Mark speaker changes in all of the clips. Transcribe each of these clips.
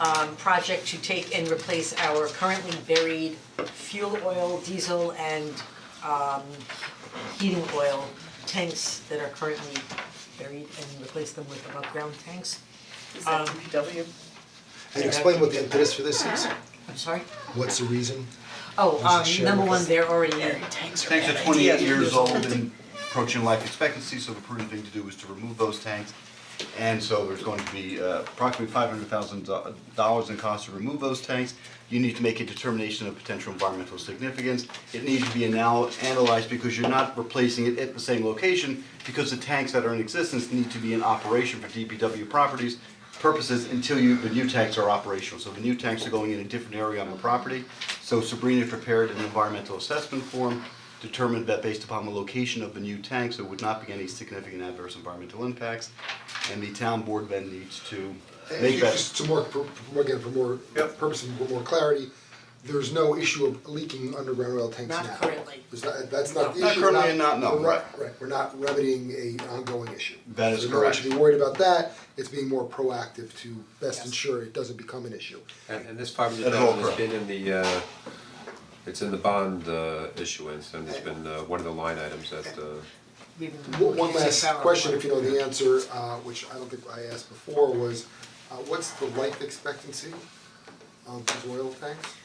Speaker 1: um project to take and replace our currently buried fuel oil, diesel and um heating oil tanks that are currently buried and replace them with above ground tanks.
Speaker 2: Is that
Speaker 1: Um,
Speaker 2: DPW?
Speaker 3: And explain what the impetus for this is,
Speaker 1: I'm sorry,
Speaker 3: what's the reason?
Speaker 1: oh,
Speaker 3: This is
Speaker 1: um number
Speaker 3: shared.
Speaker 1: one, they're already
Speaker 2: Tanks
Speaker 4: Tanks are twenty-eight years old and approaching life expectancy, so the prudent thing to do is to remove those tanks. And so there's going to be uh, approximately five hundred thousand dollars in cost to remove those tanks. You need to make a determination of potential environmental significance. It needs to be anal- analyzed because you're not replacing it at the same location because the tanks that are in existence need to be in operation for DPW properties purposes until you, the new tanks are operational, so the new tanks are going in a different area on the property. So Sabrina prepared an environmental assessment form, determined that based upon the location of the new tanks, there would not be any significant adverse environmental impacts. And the town board then needs to make
Speaker 5: And
Speaker 4: that,
Speaker 5: just to more, for, for- again, for more
Speaker 4: Yep.
Speaker 5: purpose and for more clarity, there's no issue of leaking underground oil tanks now.
Speaker 1: Not currently.
Speaker 5: There's not, that's not the
Speaker 4: Not
Speaker 5: issue, we're
Speaker 4: currently and not now,
Speaker 5: we're not-
Speaker 4: right.
Speaker 5: right, we're not remedying a ongoing issue.
Speaker 4: That is
Speaker 5: So no one should
Speaker 4: correct.
Speaker 5: be worried about that, it's being more proactive to best ensure it doesn't become an issue.
Speaker 6: And and this five hundred
Speaker 4: That's all
Speaker 6: thousand has
Speaker 4: correct.
Speaker 6: been in the uh, it's in the bond uh issuance and it's been uh one of the line items that uh
Speaker 1: We've been
Speaker 5: One one
Speaker 1: looking at
Speaker 5: last
Speaker 1: six hour
Speaker 5: question,
Speaker 1: one.
Speaker 5: if you know the answer, uh, which I don't think I asked before, was, uh, what's the life expectancy of these oil tanks?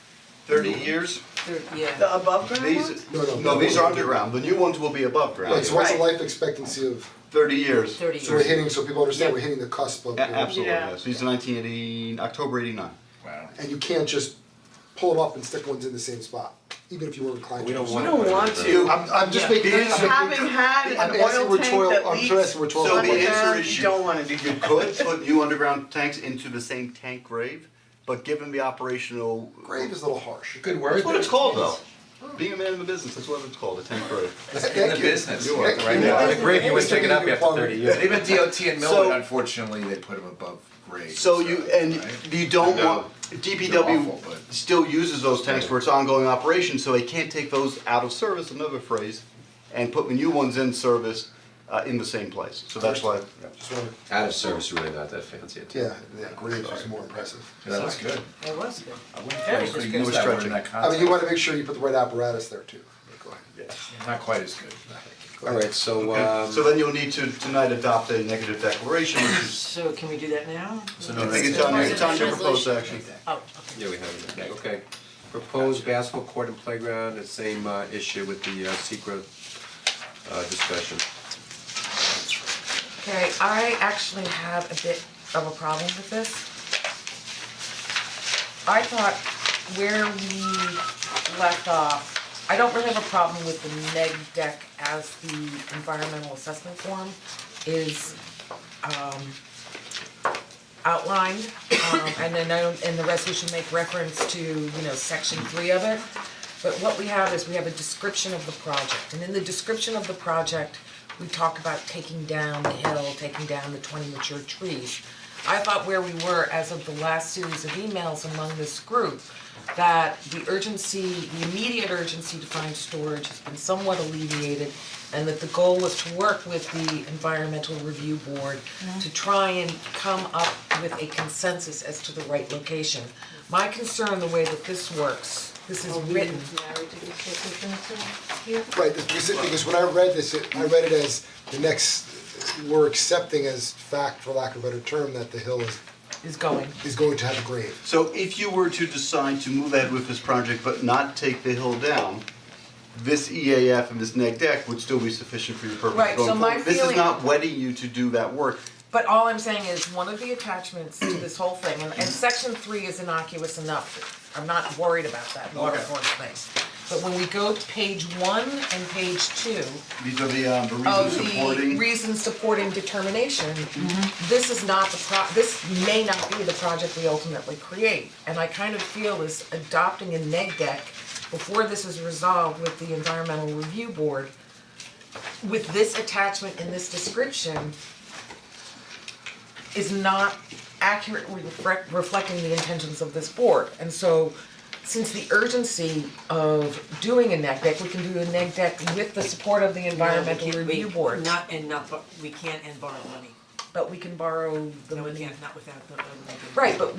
Speaker 4: thirty years,
Speaker 1: They're- yeah.
Speaker 5: Uh, um,
Speaker 2: The above ground ones?
Speaker 4: these,
Speaker 5: No, no,
Speaker 4: no, these are
Speaker 5: no.
Speaker 4: underground, the new ones will be above ground.
Speaker 5: Right, so what's the
Speaker 2: Right.
Speaker 5: life expectancy of,
Speaker 4: Thirty years.
Speaker 1: 30
Speaker 5: so we're hitting, so people understand we're
Speaker 1: Yeah.
Speaker 5: hitting the cusp of.
Speaker 4: A- absolutely,
Speaker 2: Yeah.
Speaker 4: yes, these are nineteen eighty, October eighty-nine.
Speaker 5: and you can't just pull them up and stick ones in the same spot, even if you were inclined to.
Speaker 6: we don't
Speaker 2: We
Speaker 6: want.
Speaker 2: don't want to.
Speaker 5: I'm, I'm just
Speaker 4: Yeah.
Speaker 5: making. I'm
Speaker 4: Because
Speaker 5: making-
Speaker 2: Having had
Speaker 5: I'm
Speaker 2: an
Speaker 5: asking
Speaker 2: oil
Speaker 5: rhetorical-
Speaker 2: tank that
Speaker 5: I'm just asking
Speaker 2: leaks
Speaker 5: rhetorical
Speaker 4: So the
Speaker 5: questions.
Speaker 4: answer
Speaker 2: underground,
Speaker 4: is
Speaker 2: um, you
Speaker 4: you-
Speaker 2: don't wanna do
Speaker 4: You
Speaker 2: that.
Speaker 4: could put new underground tanks into the same tank grave, but given the operational.
Speaker 5: Grave is a little harsh.
Speaker 7: Good word.
Speaker 4: That's what it's called though. Being a man of the business, that's what it's called, a tank grave.
Speaker 7: In the business.
Speaker 4: You are,
Speaker 7: Right
Speaker 4: you
Speaker 7: now.
Speaker 4: are.
Speaker 7: The grave you wouldn't pick it up after thirty years. Even DOT in
Speaker 4: So-
Speaker 7: Millwood, unfortunately, they put them above grade.
Speaker 4: So you, and
Speaker 7: right?
Speaker 4: you don't
Speaker 7: No.
Speaker 4: want, DPW
Speaker 7: They're awful, but-
Speaker 4: still uses those tanks for its ongoing operation, so they can't take those out of service, another phrase, and put the new ones in service, uh, in the same place, so that's why.
Speaker 5: Just wanted-
Speaker 6: Out of service, really not that fancy a
Speaker 5: Yeah,
Speaker 6: tank.
Speaker 5: yeah, graves is more impressive.
Speaker 7: That was good.
Speaker 1: It was good.
Speaker 7: I wouldn't
Speaker 1: Very
Speaker 7: could've
Speaker 1: good.
Speaker 7: used that word in
Speaker 4: Stretching.
Speaker 7: that
Speaker 5: I mean, you
Speaker 7: context.
Speaker 5: wanna make sure you put the right apparatus there too. Go ahead.
Speaker 7: Not quite as good.
Speaker 6: Alright, so um
Speaker 4: So then you'll need to tonight adopt a negative declaration, which is,
Speaker 1: So can we do that now?
Speaker 4: I think it's on your, it's on your proposed action.
Speaker 1: Oh, okay.
Speaker 6: Yeah, we have it, okay. Proposed basketball court and playground, the same uh issue with the uh secret uh discussion.
Speaker 8: Okay, I actually have a bit of a problem with this. I thought where we left off, I don't really have a problem with the neg deck as the environmental assessment form is um outlined. Um and then I don't, and the resolution make reference to, you know, section three of it. But what we have is we have a description of the project, and in the description of the project, we talk about taking down the hill, taking down the twenty mature trees. I thought where we were as of the last series of emails among this group, that the urgency, the immediate urgency to find storage has been somewhat alleviated, and that the goal was to work with the environmental review board to try and come up with a consensus as to the right location. My concern, the way that this works, this
Speaker 1: Oh,
Speaker 8: is written,
Speaker 5: Right, this- because it- because when I read this, it, I read it as the next, we're accepting as fact, for lack of a better term, that the hill is,
Speaker 8: is going.
Speaker 5: is going to have a grave.
Speaker 4: So if you were to decide to move ahead with this project but not take the hill down, this EAF and this E neg deck would still be sufficient for your purpose
Speaker 8: Right,
Speaker 4: going
Speaker 8: so my
Speaker 4: forward. This is
Speaker 8: feeling-
Speaker 4: not wedding you to do that work.
Speaker 8: But all I'm saying is, one of the attachments to this whole thing, and, and section three is innocuous enough, I'm not worried about that water
Speaker 4: Okay.
Speaker 8: course thing. But when we go to page one and page two
Speaker 4: These are the um the reasons
Speaker 8: of Oh, the
Speaker 4: supporting.
Speaker 8: reasons supporting determination, this is not the pro, this may not be the project we ultimately create. And I kind of feel this adopting a neg deck before this is resolved with the environmental review board, with this attachment and this description, is not accurately reflect, reflecting the intentions of this board. And so, since the urgency of doing a neg deck, we can do a neg deck with the support of the environmental
Speaker 1: No, we can't-
Speaker 8: review
Speaker 1: we-
Speaker 8: board.
Speaker 1: Not, and not, but we can't and borrow money,
Speaker 8: But we can borrow the
Speaker 1: no, we
Speaker 8: money.
Speaker 1: can't, not without the.
Speaker 8: Right, but